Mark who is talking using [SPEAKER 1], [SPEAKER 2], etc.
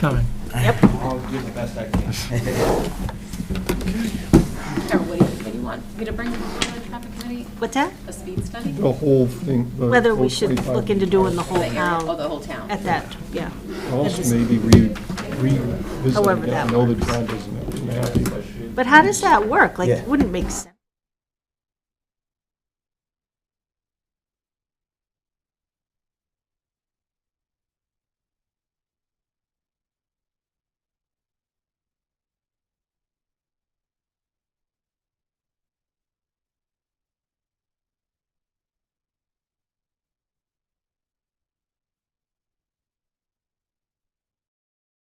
[SPEAKER 1] coming.
[SPEAKER 2] I'll do the best I can.
[SPEAKER 3] Or what do you, what do you want? Me to bring to the traffic committee,
[SPEAKER 4] What's that?
[SPEAKER 3] a speed study?
[SPEAKER 5] The whole thing. the
[SPEAKER 4] Whether
[SPEAKER 5] whole
[SPEAKER 4] we should
[SPEAKER 5] 25
[SPEAKER 4] look into doing the whole
[SPEAKER 3] The area, oh,
[SPEAKER 4] town
[SPEAKER 3] the whole town.
[SPEAKER 4] at that, yeah.
[SPEAKER 5] Also, maybe re- revisit
[SPEAKER 4] However
[SPEAKER 5] it. I
[SPEAKER 4] that
[SPEAKER 5] know the John doesn't have to be happy, but
[SPEAKER 4] But how does that work? Like,
[SPEAKER 6] Yeah.
[SPEAKER 4] it wouldn't make sense.